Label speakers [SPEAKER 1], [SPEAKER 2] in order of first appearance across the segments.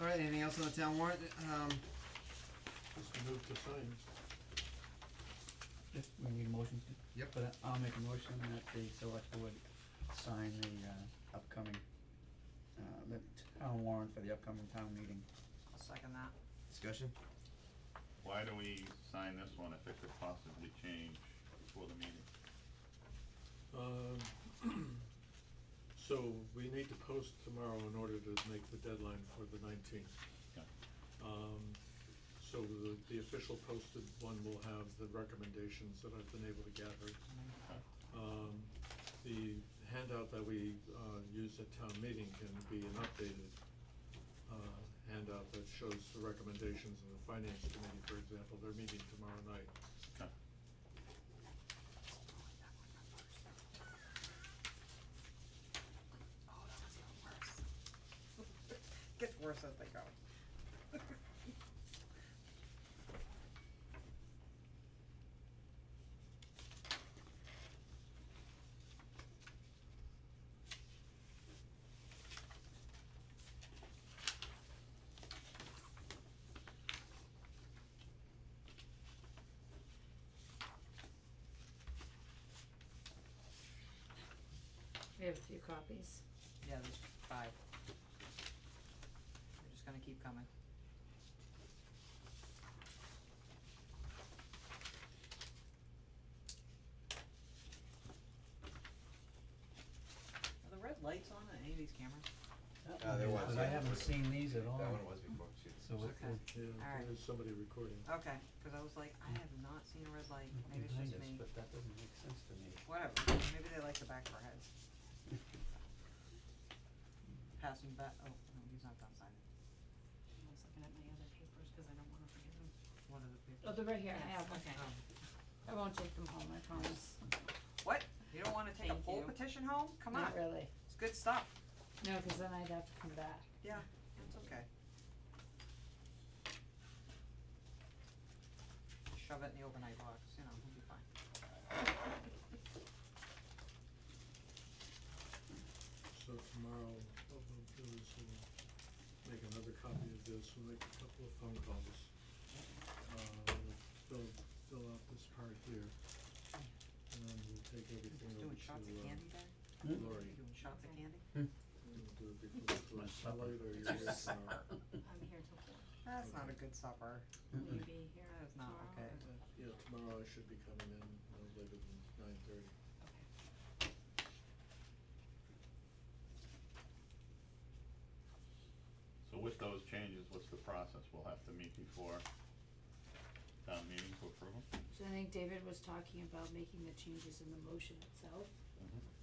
[SPEAKER 1] Alright, anything else on the town warrant, um,
[SPEAKER 2] Just move to sign.
[SPEAKER 3] If we need a motion to?
[SPEAKER 1] Yep.
[SPEAKER 3] But I'll make a motion that the select board sign the uh upcoming uh the town warrant for the upcoming town meeting.
[SPEAKER 4] I'll second that.
[SPEAKER 1] discussion?
[SPEAKER 5] Why do we sign this one if it could possibly change before the meeting?
[SPEAKER 2] Um, so we need to post tomorrow in order to make the deadline for the nineteenth.
[SPEAKER 5] Yeah.
[SPEAKER 2] Um, so the, the official posted one will have the recommendations that I've been able to gather. Um, the handout that we, uh, use at town meeting can be an updated, uh, handout that shows the recommendations of the finance committee, for example, they're meeting tomorrow night.
[SPEAKER 5] Okay.
[SPEAKER 4] Oh, that was even worse. Gets worse as they go.
[SPEAKER 6] We have a few copies.
[SPEAKER 4] Yeah, there's five. They're just gonna keep coming. Are the red lights on on any of these cameras? Oh,
[SPEAKER 1] Uh, there was,
[SPEAKER 3] But
[SPEAKER 1] yeah.
[SPEAKER 3] I haven't seen these at all.
[SPEAKER 1] That one was before, shoot.
[SPEAKER 3] So it
[SPEAKER 4] Okay.
[SPEAKER 3] would
[SPEAKER 2] Yeah,
[SPEAKER 4] Alright.
[SPEAKER 2] there's somebody recording.
[SPEAKER 4] Okay, cause I was like, I have not seen a red light, maybe it's
[SPEAKER 3] behind
[SPEAKER 4] just
[SPEAKER 3] us,
[SPEAKER 4] me,
[SPEAKER 3] but that doesn't make sense to me.
[SPEAKER 4] whatever, maybe they like the back of our heads. Passing back, oh, no, he's not done signing,
[SPEAKER 6] I was looking at my other papers because I don't wanna forget them.
[SPEAKER 4] what are the papers?
[SPEAKER 6] Oh, they're right here, Oh. I have them.
[SPEAKER 4] Okay.
[SPEAKER 6] I won't take them home, I promise.
[SPEAKER 4] What? You don't wanna take a
[SPEAKER 6] Thank
[SPEAKER 4] poll
[SPEAKER 6] you.
[SPEAKER 4] petition home? Come on,
[SPEAKER 6] Not really.
[SPEAKER 4] it's good stuff.
[SPEAKER 6] No, cause then I'd have to come back.
[SPEAKER 4] Yeah, it's okay. Shove it in the overnight box, you know, it'll be fine.
[SPEAKER 2] So tomorrow, what we'll do is we'll make another copy of this, we'll make a couple of phone calls. Uh, we'll fill, fill out this part here, and then we'll take everything
[SPEAKER 4] Just
[SPEAKER 2] over
[SPEAKER 4] Doing
[SPEAKER 2] to,
[SPEAKER 4] shots of candy
[SPEAKER 2] uh,
[SPEAKER 4] there?
[SPEAKER 3] Hmm?
[SPEAKER 2] Lori,
[SPEAKER 4] You doing shots of
[SPEAKER 6] Okay.
[SPEAKER 4] candy?
[SPEAKER 2] and do it before the
[SPEAKER 3] My
[SPEAKER 2] close
[SPEAKER 3] supper.
[SPEAKER 2] light, or you're here tomorrow.
[SPEAKER 1] uh,
[SPEAKER 6] I'm here till four.
[SPEAKER 4] That's not a good supper.
[SPEAKER 6] Will you
[SPEAKER 3] Mm-mm.
[SPEAKER 6] be here
[SPEAKER 4] That is not
[SPEAKER 6] tomorrow?
[SPEAKER 4] okay.
[SPEAKER 6] or-
[SPEAKER 2] Uh, Yeah, tomorrow I should be coming in no later than nine thirty.
[SPEAKER 5] So with those changes, what's the process? We'll have to meet before town meeting to approve them?
[SPEAKER 6] So I think David was talking about making the changes in the motion itself.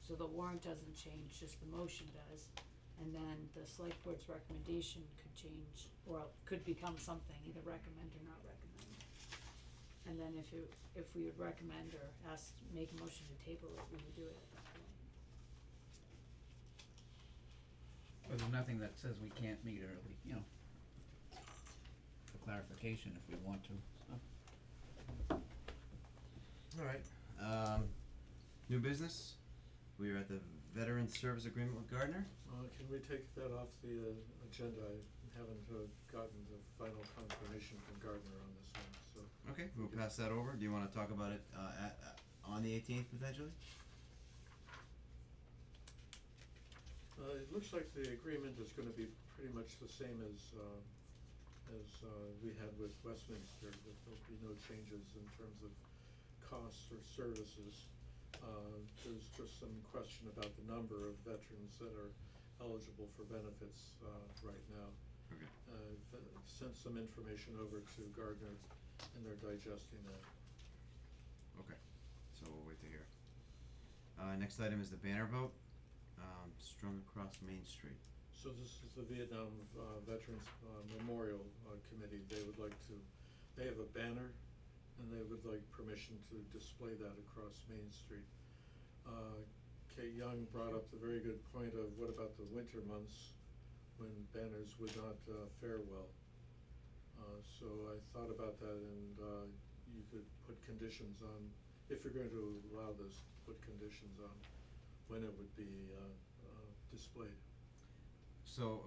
[SPEAKER 6] So the warrant doesn't change, just the motion does. And then the select board's recommendation could change, or could become something, either recommend or not recommend. And then if you, if we would recommend or ask, make a motion to table it, we would do it at that point.
[SPEAKER 3] But there's nothing that says we can't meet early, you know. For clarification if we want to, so.
[SPEAKER 1] Alright, um, new business, we are at the veteran service agreement with Gardner,
[SPEAKER 2] Uh, can we take that off the uh, agenda? I haven't uh, gotten the final confirmation from Gardner on this one, so.
[SPEAKER 1] okay, we'll pass that over, do you wanna talk about it, uh, at, uh, on the eighteenth potentially?
[SPEAKER 2] Uh, it looks like the agreement is gonna be pretty much the same as, uh, as, uh, we had with Westminster, that there'll be no changes in terms of costs or services. Uh, there's just some question about the number of veterans that are eligible for benefits, uh, right now.
[SPEAKER 1] Okay.
[SPEAKER 2] Uh, I've uh, sent some information over to Gardner, and they're digesting that.
[SPEAKER 1] Okay, so we'll wait to hear. Uh, next item is the banner vote, um, strung across Main Street.
[SPEAKER 2] So this is the Vietnam uh, Veterans uh, Memorial uh, Committee, they would like to, they have a banner, and they would like permission to display that across Main Street. Uh, Kate Young brought up the very good point of what about the winter months when banners would not uh, fare well? Uh, So I thought about that, and uh, you could put conditions on, if you're going to allow this, put conditions on when it would be uh, uh, displayed.
[SPEAKER 1] So,